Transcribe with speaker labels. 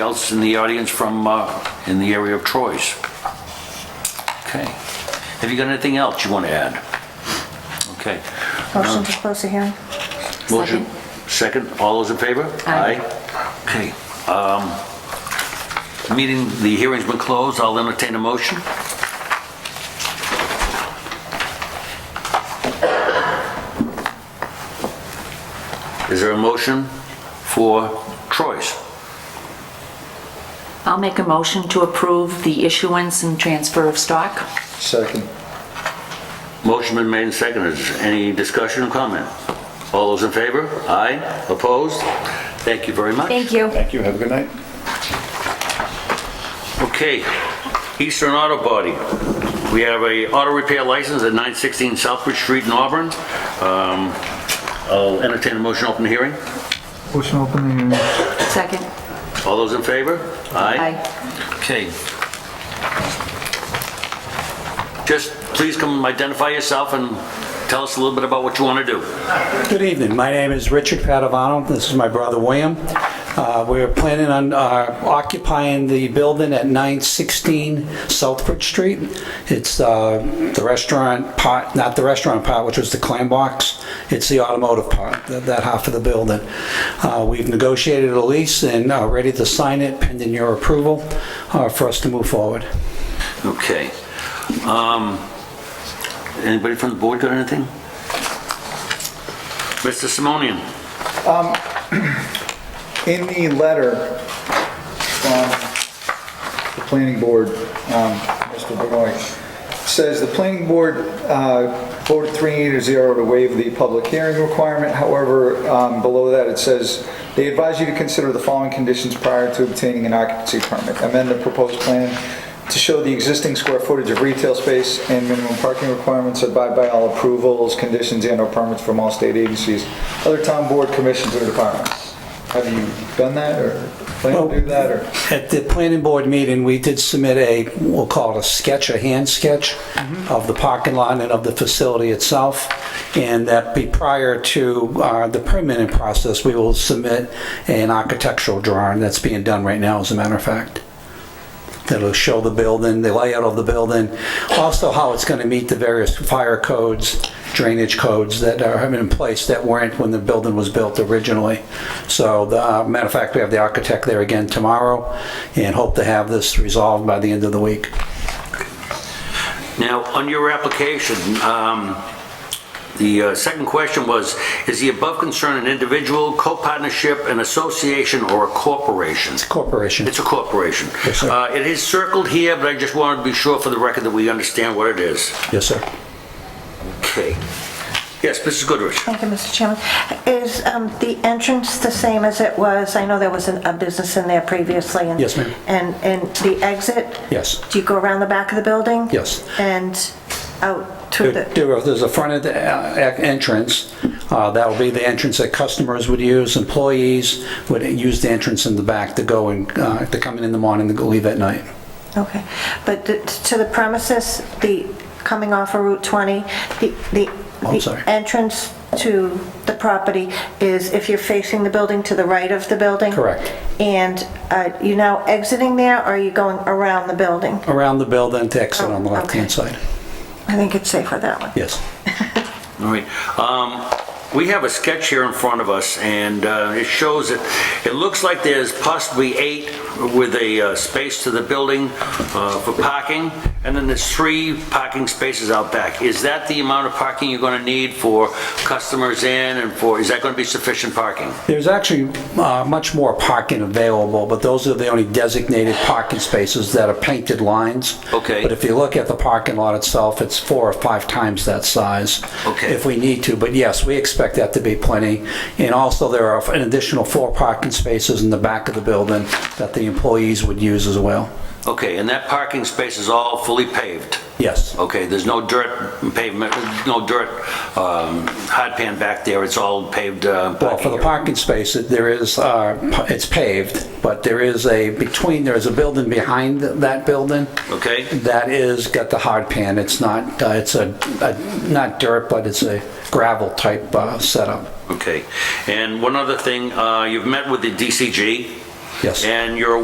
Speaker 1: else in the audience from, uh, in the area of Troy's? Okay. Have you got anything else you want to add? Okay. Uh,
Speaker 2: Motion to close the hearing.
Speaker 1: Motion, second, all those in favor?
Speaker 2: Aye.
Speaker 1: Okay. um, Meeting, the hearing's been closed, I'll entertain a motion. Is there a motion for Troy's?
Speaker 3: I'll make a motion to approve the issuance and transfer of stock.
Speaker 4: Second.
Speaker 1: Motion been made and seconded. Is Any discussion or comment? All those in favor? Aye. Opposed? Thank you very much.
Speaker 2: Thank you.
Speaker 4: Thank you, have a good night.
Speaker 1: Okay, Eastern Auto Body. We have a auto repair license at 916 Southbridge Street in Auburn. Um, I'll entertain a motion, to open the hearing.
Speaker 5: Motion open the hearing.
Speaker 3: Second.
Speaker 1: All those in favor? Aye.
Speaker 3: Aye.
Speaker 1: Okay. Just please come identify yourself and tell us a little bit about what you want to do.
Speaker 6: Good evening. My name is Richard Padovano. This is my brother William. Uh, We're planning on uh, occupying the building at 916 Southbridge Street. It's uh, the restaurant part, not the restaurant part, which was the clam box. It's the automotive part, that that half of the building. Uh, We've negotiated a lease and are ready to sign it pending your approval uh, for us to move forward.
Speaker 1: Okay. Um, Anybody from the board got anything? Mr. Simonian?
Speaker 4: In the letter from the planning board, um, Mr. Benoit, says the planning board uh, voted three to zero to waive the public hearing requirement. However, um, below that, it says, "They advise you to consider the following conditions prior to obtaining an occupancy permit. Amend the proposed plan to show the existing square footage of retail space and minimum parking requirements abide by all approvals, conditions, and/or permits from all state agencies, other town board commissions or departments." Have you done that, or plan to do that, or?
Speaker 6: At the planning board meeting, we did submit a, we'll call it a sketch, a hand sketch of the parking lot and of the facility itself. And that be prior to uh, the permitting process, we will submit an architectural drawing that's being done right now, as a matter of fact. That'll show the building, the layout of the building, also how it's gonna meet the various fire codes, drainage codes that are in place that weren't when the building was built originally. So, the, uh, matter of fact, we have the architect there again tomorrow and hope to have this resolved by the end of the week.
Speaker 1: Now, on your application, um, the uh, second question was, is the above concern an individual, co-partnership, an association, or a corporation?
Speaker 6: Corporation.
Speaker 1: It's a corporation.
Speaker 6: Yes, sir.
Speaker 1: Uh, It is circled here, but I just wanted to be sure for the record that we understand what it is.
Speaker 6: Yes, sir.
Speaker 1: Okay. Yes, Mrs. Goodrich?
Speaker 2: Thank you, Mr. Chairman. Is um, the entrance the same as it was? I know there was an- a business in there previously. and-
Speaker 6: Yes, ma'am.
Speaker 2: And, and the exit?
Speaker 6: Yes.
Speaker 2: Do you go around the back of the building?
Speaker 6: Yes.
Speaker 2: And out to
Speaker 6: There-
Speaker 2: the,
Speaker 6: there- There's a front of the, uh, e- entrance, uh, that'll be the entrance that customers would use, employees would use the entrance in the back to go and, uh, to come in in the morning to go leave at night.
Speaker 2: okay. But the- to the premises, the, coming off of Route 20, the, the
Speaker 6: Oh, I'm
Speaker 2: the
Speaker 6: sorry.
Speaker 2: entrance to the property is if you're facing the building, to the right of the building?
Speaker 6: Correct.
Speaker 2: And uh, you now exiting there, or are you going around the building?
Speaker 6: Around the building to exit on the
Speaker 2: Oh,
Speaker 6: left-hand
Speaker 2: okay.
Speaker 6: side.
Speaker 2: I think it's safer that way.
Speaker 6: Yes.
Speaker 1: All right. Um, We have a sketch here in front of us, and uh, it shows that, it looks like there's possibly eight with a uh, space to the building uh, for parking, and then there's three parking spaces out back. Is that the amount of parking you're going to need for customers in and for, is that going to be sufficient parking?
Speaker 6: There's actually uh, much more parking available, but those are the only designated parking spaces that are painted lines.
Speaker 1: Okay.
Speaker 6: But if you look at the parking lot itself, it's four or five times that size.
Speaker 1: Okay.
Speaker 6: If we need to, but yes, we expect that to be plenty. And also, there are an additional four parking spaces in the back of the building that the employees would use as well.
Speaker 1: Okay, and that parking space is all fully paved?
Speaker 6: Yes,
Speaker 1: Okay, there's no dirt pavement, no dirt um, hard pan back there, it's all paved uh,
Speaker 6: well, for
Speaker 1: parking
Speaker 6: the
Speaker 1: area?
Speaker 6: parking space, it- there is, uh, pa- it's paved, but there is a, between, there is a building behind that building.
Speaker 1: Okay.
Speaker 6: That is, got the hard pan, it's not, uh, it's a, a- not dirt, but it's a gravel type uh, setup.
Speaker 1: Okay, and one other thing, uh, you've met with the DCG?
Speaker 6: Yes.
Speaker 1: And you're